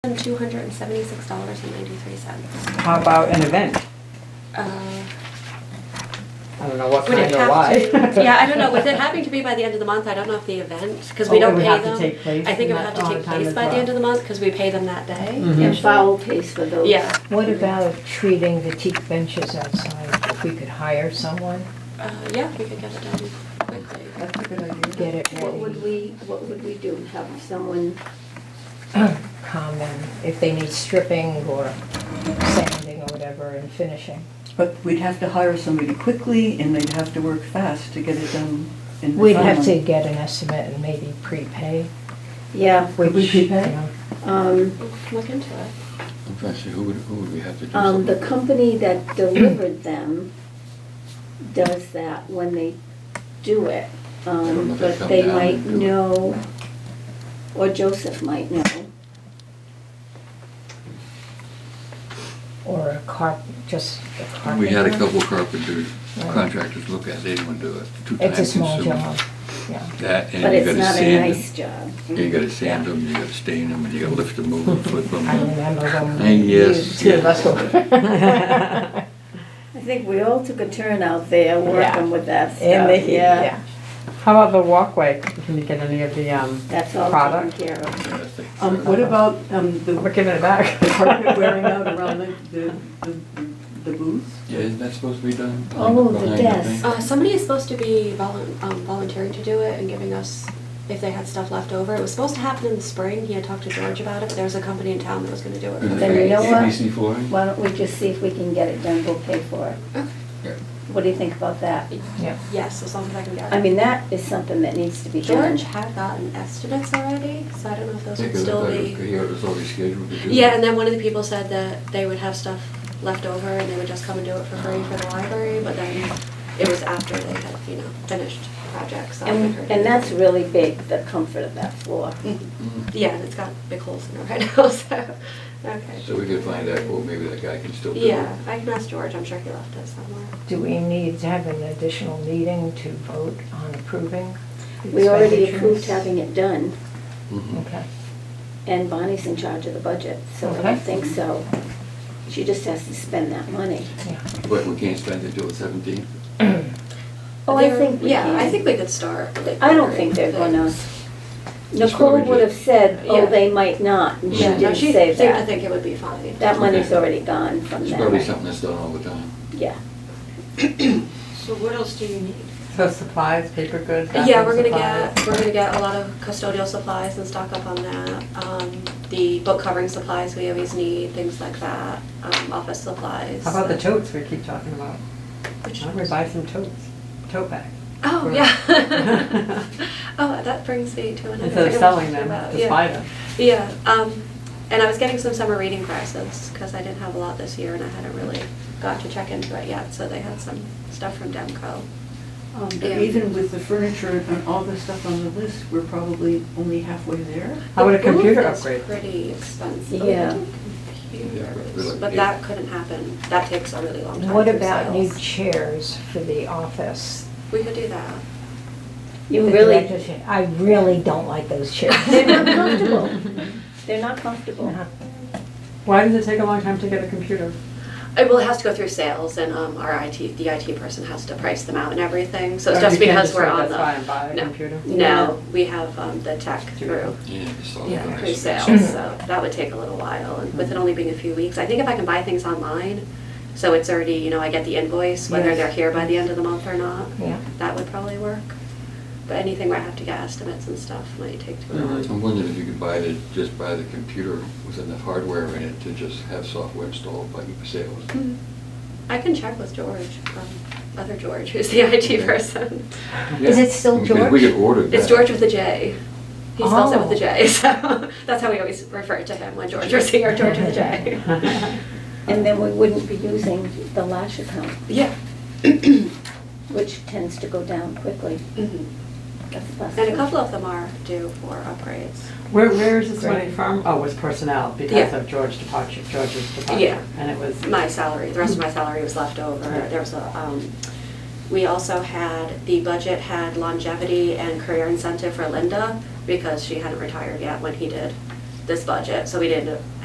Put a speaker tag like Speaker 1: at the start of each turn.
Speaker 1: two hundred and seventy-six dollars and ninety-three cents.
Speaker 2: How about an event?
Speaker 1: Uh,
Speaker 2: I don't know what
Speaker 1: Would it
Speaker 2: kind or why.
Speaker 1: have to? Yeah, I don't know, with it having to be by the end of the month, I don't know if the event, because we
Speaker 2: Oh, it
Speaker 1: don't
Speaker 2: would
Speaker 1: pay
Speaker 2: have to
Speaker 1: them.
Speaker 2: take place
Speaker 1: I think it
Speaker 2: in
Speaker 1: would
Speaker 2: that
Speaker 1: have to take
Speaker 2: time
Speaker 1: place
Speaker 2: as
Speaker 1: by the
Speaker 2: well.
Speaker 1: end of the month, because we pay them that day.
Speaker 2: Mhm.
Speaker 3: And foul pays for those.
Speaker 1: Yeah.
Speaker 4: What about treating the teak benches outside? If we could hire someone,
Speaker 1: Uh, yeah, we could get it done quickly.
Speaker 5: That's a good idea.
Speaker 4: get it
Speaker 3: What would
Speaker 4: ready,
Speaker 3: we, what would we do? Have someone,
Speaker 4: come and if they need stripping or sanding or whatever and finishing.
Speaker 5: But we'd have to hire somebody quickly and they'd have to work fast to get it done in the
Speaker 4: We'd have to
Speaker 5: time.
Speaker 4: get an estimate and maybe prepay,
Speaker 3: yeah,
Speaker 4: which,
Speaker 5: Could we
Speaker 4: you
Speaker 5: prepay?
Speaker 4: know,
Speaker 3: um,
Speaker 1: We can Look into it.
Speaker 6: I'm trying to see, who would, who would we have to do
Speaker 3: um, the
Speaker 6: something?
Speaker 3: company that delivered them does that when they do it.
Speaker 6: I don't know
Speaker 3: Um,
Speaker 6: if they
Speaker 3: but
Speaker 6: come
Speaker 3: they
Speaker 6: down
Speaker 3: might
Speaker 6: and do it.
Speaker 3: know, or Joseph might know.
Speaker 4: or a carp, just a carpenter.
Speaker 6: We had a couple carpenters,
Speaker 4: Right.
Speaker 6: contractors look at it, they didn't want to do it. Too
Speaker 4: It's a
Speaker 6: time
Speaker 4: small
Speaker 6: consuming.
Speaker 4: job, yeah.
Speaker 6: That,
Speaker 3: But
Speaker 6: and you
Speaker 3: it's
Speaker 6: gotta
Speaker 3: not a
Speaker 6: sand
Speaker 3: nice
Speaker 6: them,
Speaker 3: job.
Speaker 6: you gotta sand them, you gotta stain them, and you gotta lift them over, flip them.
Speaker 4: I remember
Speaker 6: Hey,
Speaker 4: when you
Speaker 6: yes,
Speaker 4: two of
Speaker 6: yes.
Speaker 4: us were.
Speaker 3: I think we all took a turn out there working with that
Speaker 4: In the
Speaker 3: stuff,
Speaker 4: heat,
Speaker 3: yeah.
Speaker 4: yeah.
Speaker 2: How about the walkway? Can you get any of the, um,
Speaker 3: That's all taken
Speaker 2: Product.
Speaker 3: care of.
Speaker 6: Yeah, I think so.
Speaker 5: Um, what about, um,
Speaker 2: we're
Speaker 5: the
Speaker 2: giving it back.
Speaker 5: the carpet wearing out around the, the, the- the booths?
Speaker 6: Yeah, isn't that supposed to be done?
Speaker 3: Oh,
Speaker 6: Behind-
Speaker 3: the
Speaker 6: behind
Speaker 3: desk.
Speaker 6: thing?
Speaker 1: Uh, somebody is supposed to be volun- um, volunteering to do it and giving us, if they had stuff left over. It was supposed to happen in the spring. He had talked to George about it, but there was a company in town that was gonna do it. for
Speaker 2: Mm-hmm.
Speaker 6: And
Speaker 1: the
Speaker 3: Then you
Speaker 1: free.
Speaker 3: know what?
Speaker 6: ABC for it?
Speaker 3: Why don't we just see if we can get it done, we'll pay for it.
Speaker 6: Yeah.
Speaker 3: What do you think about that?
Speaker 4: Yeah.
Speaker 1: Yes, as long as I can get it.
Speaker 3: I mean, that is something that needs to be done.
Speaker 1: George had gotten estimates already, so I don't know if those
Speaker 6: Take
Speaker 1: would
Speaker 6: a
Speaker 1: still
Speaker 6: look at
Speaker 1: be.
Speaker 6: it, here, it's already scheduled to do.
Speaker 1: Yeah, and then one of the people said that they would have stuff left over and they would just come and do it for free for the library, but then it was after they had, you know, finished projects. so I
Speaker 3: And,
Speaker 1: figured-
Speaker 3: and that's really big, the comfort of that floor.
Speaker 6: Mm.
Speaker 1: Yeah, and it's got big holes in it right now, so, okay.
Speaker 6: So we could find out, well, maybe that guy can still do it.
Speaker 1: Yeah, I can ask George, I'm sure he left it somewhere.
Speaker 4: Do we need to have an additional meeting to vote on approving? the
Speaker 3: We already
Speaker 4: expenditures?
Speaker 3: approved having it done,
Speaker 6: Mhm.
Speaker 4: Okay,
Speaker 3: and Bonnie's in charge of the budget, so I
Speaker 4: Okay.
Speaker 3: don't think so. She just has to spend that money.
Speaker 4: yeah.
Speaker 6: But we can't spend it till the seventeenth?
Speaker 3: Oh, I
Speaker 1: They're-
Speaker 3: think we
Speaker 1: Yeah, I
Speaker 3: can.
Speaker 1: think we could start. like,
Speaker 3: I don't think they're
Speaker 1: the-
Speaker 3: gonna,
Speaker 6: That's what we
Speaker 3: Nicole would
Speaker 6: did.
Speaker 3: have said, oh,
Speaker 1: Yeah.
Speaker 3: they might not, and she
Speaker 1: Yeah, no,
Speaker 3: didn't
Speaker 1: she
Speaker 3: say
Speaker 1: seemed to
Speaker 3: that.
Speaker 1: think it would be fine.
Speaker 3: That money's
Speaker 6: Okay.
Speaker 3: already gone from
Speaker 6: It's
Speaker 3: that.
Speaker 6: probably something that's done all the time.
Speaker 3: Yeah,
Speaker 1: So what else do you need?
Speaker 2: So supplies, paper goods,
Speaker 1: Yeah, we're gonna
Speaker 2: bathroom supplies.
Speaker 1: get, we're gonna get a lot of custodial supplies and stock up on that. Um, the book covering supplies we always need, things like that, um, office supplies.
Speaker 2: How about the totes we keep talking about? Why don't we buy some totes, tote bags?
Speaker 1: Oh, yeah. Oh, that brings me to another.
Speaker 2: Instead of
Speaker 1: thing I
Speaker 2: selling
Speaker 1: wanted to
Speaker 2: them,
Speaker 1: talk about.
Speaker 2: just
Speaker 1: Yeah.
Speaker 2: buy them.
Speaker 1: Yeah, um, and I was getting some summer reading prices, because I didn't have a lot this year and I hadn't really got to check into it yet, so they had some stuff from Demco.
Speaker 2: Oh,
Speaker 5: Um,
Speaker 1: Yeah.
Speaker 5: but even with the furniture and all the stuff on the list, we're probably only halfway there.
Speaker 2: How about a
Speaker 1: The booth
Speaker 2: computer
Speaker 1: is
Speaker 2: upgrade?
Speaker 1: Pretty expensive.
Speaker 3: Yeah.
Speaker 1: Computers, But that couldn't happen, that takes a really long time.
Speaker 4: What
Speaker 1: through
Speaker 4: about new
Speaker 1: sales.
Speaker 4: chairs for the office?
Speaker 1: We could do that.
Speaker 3: you
Speaker 4: The
Speaker 3: really,
Speaker 4: director's chair. I really don't like those chairs.
Speaker 3: they're not comfortable. They're not comfortable.
Speaker 2: Why does it take a long time to get a computer?
Speaker 1: Uh, Well, it has to go through sales and um, our IT, the IT person has to price them out and everything, so it's
Speaker 2: Or
Speaker 1: just
Speaker 2: you can't
Speaker 1: because we're
Speaker 2: sort of
Speaker 1: on
Speaker 2: That's why
Speaker 1: the.
Speaker 2: and buy
Speaker 1: no.
Speaker 2: a computer.
Speaker 1: No, we have um, the tech through,
Speaker 6: Yeah, it's all
Speaker 1: yeah,
Speaker 6: done.
Speaker 1: through
Speaker 4: Mm-hmm.
Speaker 1: sales, so that would take a little while, and with it only being a few weeks, I think if I can buy things online, so it's already, you know, I get the invoice, whether
Speaker 4: Yes.
Speaker 1: they're here by the end of the month or not,
Speaker 4: Yeah.
Speaker 1: that would probably work. But anything where I have to get estimates and stuff might take too long.
Speaker 6: Uh, I'm wondering if you could buy the, just buy the computer with enough hardware in it to just have software installed by sales.
Speaker 1: Mm-hmm. I can check with George, um, other George, who's the IT
Speaker 4: Mm-hmm.
Speaker 6: Okay.
Speaker 1: person.
Speaker 4: Is
Speaker 6: Yeah.
Speaker 4: it still
Speaker 6: Because We
Speaker 4: George?
Speaker 6: could order that.
Speaker 1: It's George with a J. He spells it with a
Speaker 4: Oh.
Speaker 1: J, so that's how we always refer to him when George was here, George with a J.
Speaker 3: And then we wouldn't be using the lash account,
Speaker 1: Yeah.
Speaker 3: which tends to go down quickly.
Speaker 1: Mhm.
Speaker 3: That's
Speaker 1: And a
Speaker 3: possible.
Speaker 1: couple of them are due for upgrades.
Speaker 2: Where, where is this money
Speaker 4: Great.
Speaker 2: from? Oh, it was personnel because
Speaker 1: Yeah.
Speaker 2: of George's departure, George's departure.
Speaker 1: Yeah.
Speaker 2: And it was,
Speaker 1: My salary, the rest of my salary was left over.
Speaker 2: Right.
Speaker 1: There was a, um, we also had, the budget had longevity and career incentive for Linda because she hadn't retired yet when he did this budget, so we didn't